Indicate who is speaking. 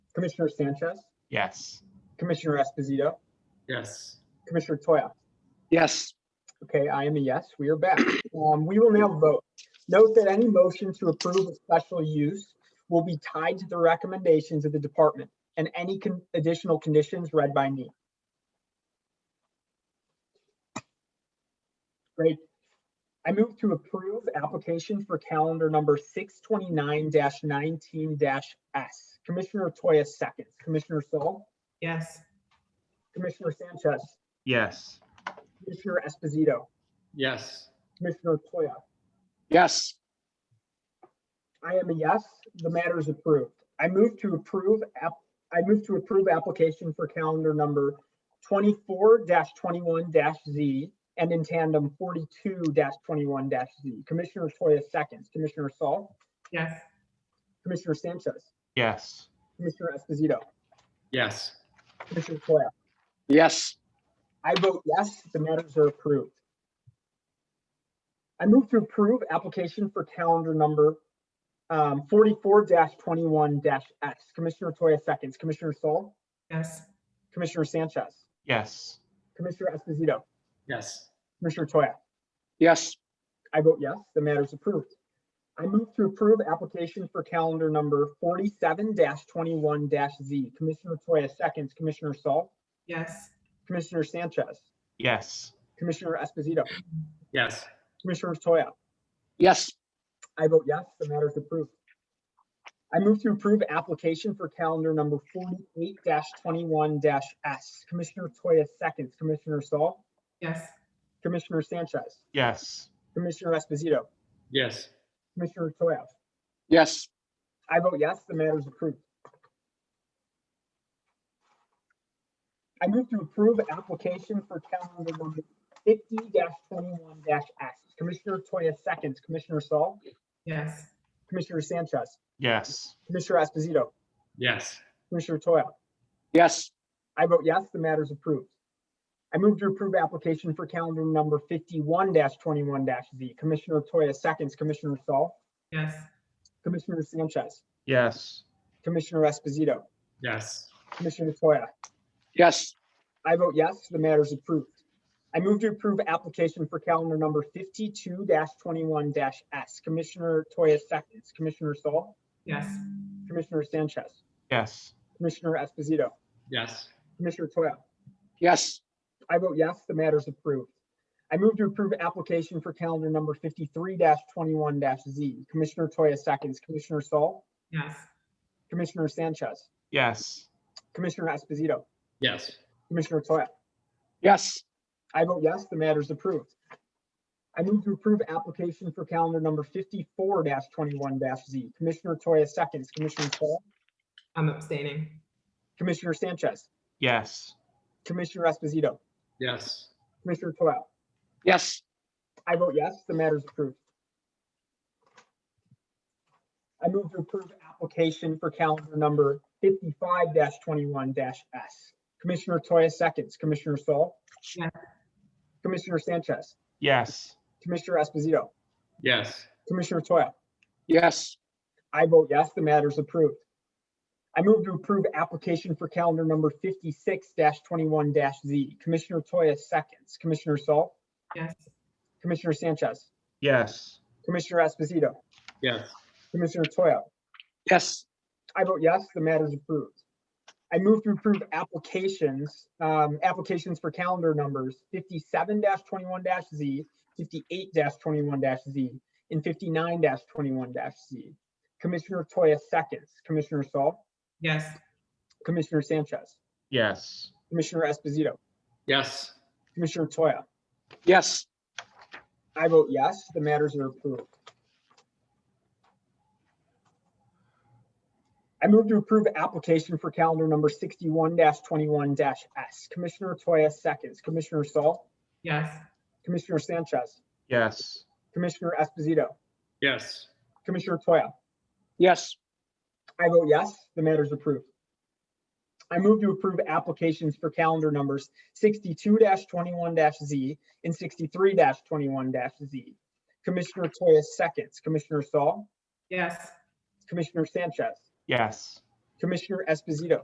Speaker 1: Commissioner Sanchez,
Speaker 2: Yes.
Speaker 1: Commissioner Esposito,
Speaker 3: Yes.
Speaker 1: Commissioner Toya.
Speaker 4: Yes.
Speaker 1: Okay, I am a yes. We are back. Um, we will now vote. Note that any motion to approve a special use will be tied to the recommendations of the department and any con- additional conditions read by me. Great. I move to approve application for calendar number six twenty-nine nineteen S. Commissioner Toya seconds, Commissioner Saul,
Speaker 5: yes,
Speaker 1: Commissioner Sanchez,
Speaker 2: Yes.
Speaker 1: Commissioner Esposito,
Speaker 3: Yes.
Speaker 1: Commissioner Toya.
Speaker 4: Yes.
Speaker 1: I am a yes. The matter is approved. I move to approve, app. I move to approve application for calendar number twenty-four twenty-one Z and in tandem forty-two twenty-one Z. Commissioner Toya seconds, Commissioner Saul,
Speaker 5: yes,
Speaker 1: Commissioner Sanchez,
Speaker 2: Yes.
Speaker 1: Commissioner Esposito,
Speaker 3: Yes.
Speaker 1: Commissioner Toya.
Speaker 4: Yes.
Speaker 1: I vote yes, the matters are approved. I move to approve application for calendar number um, 44-21-S. Commissioner Toya seconds, Commissioner Saul,
Speaker 5: yes,
Speaker 1: Commissioner Sanchez,
Speaker 2: Yes.
Speaker 1: Commissioner Esposito,
Speaker 3: Yes.
Speaker 1: Commissioner Toya.
Speaker 4: Yes.
Speaker 1: I vote yes, the matter is approved. I move to approve application for calendar number 47-21-Z. Commissioner Toya seconds, Commissioner Saul,
Speaker 5: yes,
Speaker 1: Commissioner Sanchez,
Speaker 2: Yes.
Speaker 1: Commissioner Esposito,
Speaker 3: Yes.
Speaker 1: Commissioner Toya.
Speaker 4: Yes.
Speaker 1: I vote yes, the matter is approved. I move to approve application for calendar number forty-eight twenty-one S. Commissioner Toya seconds, Commissioner Saul,
Speaker 5: yes,
Speaker 1: Commissioner Sanchez,
Speaker 2: Yes.
Speaker 1: Commissioner Esposito,
Speaker 3: Yes.
Speaker 1: Commissioner Toya.
Speaker 4: Yes.
Speaker 1: I vote yes, the matter is approved. I move to approve application for calendar number fifty twenty-one S. Commissioner Toya seconds, Commissioner Saul,
Speaker 5: yes,
Speaker 1: Commissioner Sanchez,
Speaker 2: Yes.
Speaker 1: Commissioner Esposito,
Speaker 3: Yes.
Speaker 1: Commissioner Toya.
Speaker 4: Yes.
Speaker 1: I vote yes, the matter is approved. I move to approve application for calendar number fifty-one twenty-one Z. Commissioner Toya seconds, Commissioner Saul,
Speaker 5: yes,
Speaker 1: Commissioner Sanchez,
Speaker 2: Yes.
Speaker 1: Commissioner Esposito,
Speaker 3: Yes.
Speaker 1: Commissioner Toya.
Speaker 4: Yes.
Speaker 1: I vote yes, the matter is approved. I move to approve application for calendar number fifty-two twenty-one S. Commissioner Toya seconds, Commissioner Saul,
Speaker 5: yes,
Speaker 1: Commissioner Sanchez,
Speaker 2: Yes.
Speaker 1: Commissioner Esposito,
Speaker 3: Yes.
Speaker 1: Commissioner Toya.
Speaker 4: Yes.
Speaker 1: I vote yes, the matter is approved. I move to approve application for calendar number fifty-three twenty-one Z. Commissioner Toya seconds, Commissioner Saul,
Speaker 5: yes,
Speaker 1: Commissioner Sanchez,
Speaker 2: Yes.
Speaker 1: Commissioner Esposito,
Speaker 3: Yes.
Speaker 1: Commissioner Toya.
Speaker 4: Yes.
Speaker 1: I vote yes, the matter is approved. I move to approve application for calendar number fifty-four twenty-one Z. Commissioner Toya seconds, Commissioner Saul,
Speaker 5: I'm abstaining,
Speaker 1: Commissioner Sanchez,
Speaker 2: Yes.
Speaker 1: Commissioner Esposito,
Speaker 3: Yes.
Speaker 1: Commissioner Toya.
Speaker 4: Yes.
Speaker 1: I vote yes, the matter is approved. I move to approve application for calendar number fifty-five twenty-one S. Commissioner Toya seconds, Commissioner Saul.
Speaker 5: Yes.
Speaker 1: Commissioner Sanchez,
Speaker 2: Yes.
Speaker 1: Commissioner Esposito,
Speaker 3: Yes.
Speaker 1: Commissioner Toya.
Speaker 4: Yes.
Speaker 1: I vote yes, the matter is approved. I move to approve application for calendar number fifty-six twenty-one Z. Commissioner Toya seconds, Commissioner Saul,
Speaker 5: yes,
Speaker 1: Commissioner Sanchez,
Speaker 2: Yes.
Speaker 1: Commissioner Esposito,
Speaker 3: Yes.
Speaker 1: Commissioner Toya.
Speaker 4: Yes.
Speaker 1: I vote yes, the matter is approved. I move to approve applications, um, applications for calendar numbers fifty-seven twenty-one Z, fifty-eight twenty-one Z, and fifty-nine twenty-one Z. Commissioner Toya seconds, Commissioner Saul,
Speaker 5: yes,
Speaker 1: Commissioner Sanchez,
Speaker 2: Yes.
Speaker 1: Commissioner Esposito,
Speaker 3: Yes.
Speaker 1: Commissioner Toya.
Speaker 4: Yes.
Speaker 1: I vote yes, the matters are approved. I move to approve application for calendar number sixty-one twenty-one S. Commissioner Toya seconds, Commissioner Saul,
Speaker 5: yes,
Speaker 1: Commissioner Sanchez,
Speaker 2: Yes.
Speaker 1: Commissioner Esposito,
Speaker 3: Yes.
Speaker 1: Commissioner Toya.
Speaker 4: Yes.
Speaker 1: I vote yes, the matter is approved. I move to approve applications for calendar numbers sixty-two twenty-one Z and sixty-three twenty-one Z. Commissioner Toya seconds, Commissioner Saul,
Speaker 5: yes,
Speaker 1: Commissioner Sanchez,
Speaker 2: Yes.
Speaker 1: Commissioner Esposito.